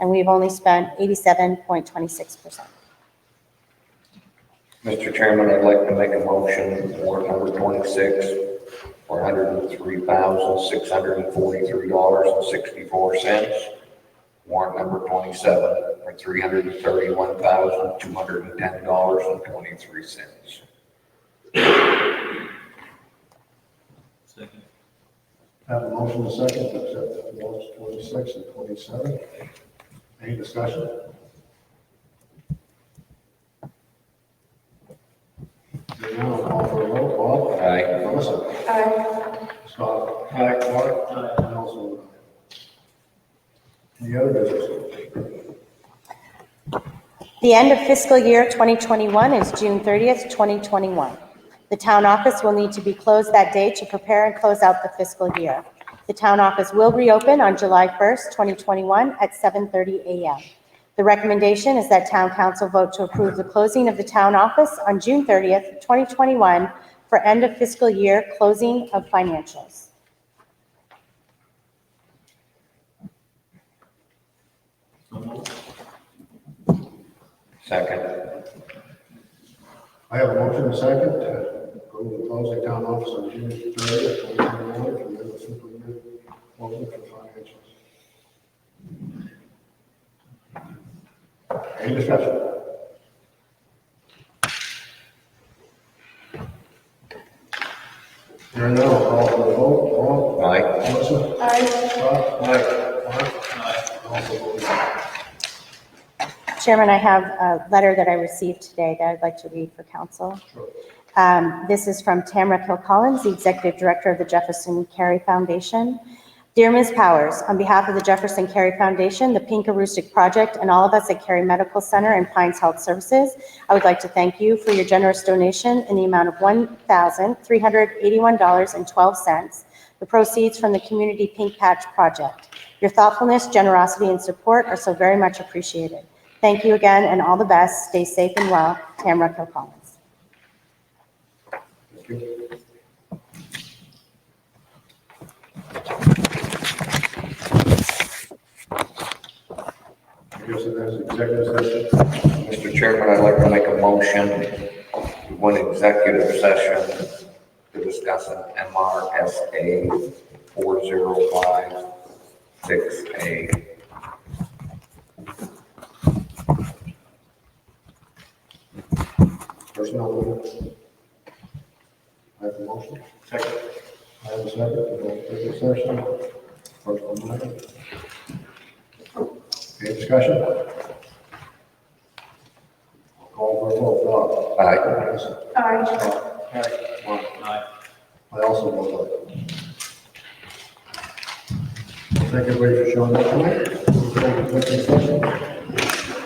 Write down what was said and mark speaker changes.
Speaker 1: and we've only spent 87.26%.
Speaker 2: Mr. Chairman, I'd like to make a motion for number twenty-six for hundred and three thousand, six hundred and forty-three dollars and sixty-four cents. Warrant number twenty-seven for three hundred and thirty-one thousand, two hundred and ten dollars and twenty-three cents.
Speaker 3: Second.
Speaker 4: Have a motion and a second to accept warrants twenty-six and twenty-seven. Any discussion? Hearing none, I'll call for a roll call.
Speaker 2: Aye.
Speaker 4: Melissa? Aye. Scott? Aye. Mark? Aye. And also, aye. Any other business?
Speaker 1: The end of fiscal year 2021 is June 30th, 2021. The town office will need to be closed that day to prepare and close out the fiscal year. The town office will reopen on July 1st, 2021 at 7:30 a.m. The recommendation is that town council vote to approve the closing of the town office on June 30th, 2021 for end of fiscal year closing of financials.
Speaker 3: So moved.
Speaker 2: Second.
Speaker 4: I have a motion and a second to approve the closing town office on June thirtieth, twenty twenty-one, for the fiscal year, closing for financials. Any discussion? Hearing none, I'll call for the vote, Paul?
Speaker 2: Aye.
Speaker 4: Melissa? Aye. Scott? Aye. Mark? Aye. Also voting aye.
Speaker 1: Chairman, I have a letter that I received today that I'd like to read for council.
Speaker 4: Sure.
Speaker 1: Um, This is from Tamra Hill Collins, the Executive Director of the Jefferson Carey Foundation. Dear Ms. Powers, on behalf of the Jefferson Carey Foundation, the Pinkaroostick Project, and all of us at Carey Medical Center and Pines Health Services, I would like to thank you for your generous donation in the amount of $1,381.12, the proceeds from the Community Pink Patch Project. Your thoughtfulness, generosity, and support are so very much appreciated. Thank you again, and all the best. Stay safe and well. Tamra Hill Collins.
Speaker 4: Thank you. I guess it has executive session.
Speaker 2: Mr. Chairman, I'd like to make a motion to go into executive session to discuss an MRSA four zero five six A.
Speaker 4: Personnel. matter. I have a motion. Second. I have a second. to go into Executive session. Personnel matter. Any discussion? Call for a vote. Bob?
Speaker 2: Aye.
Speaker 4: Melissa?
Speaker 5: Aye.
Speaker 4: Aye. Mark?
Speaker 3: Aye.
Speaker 4: I also vote aye. Thank everybody for showing up tonight. We'll go to the next session.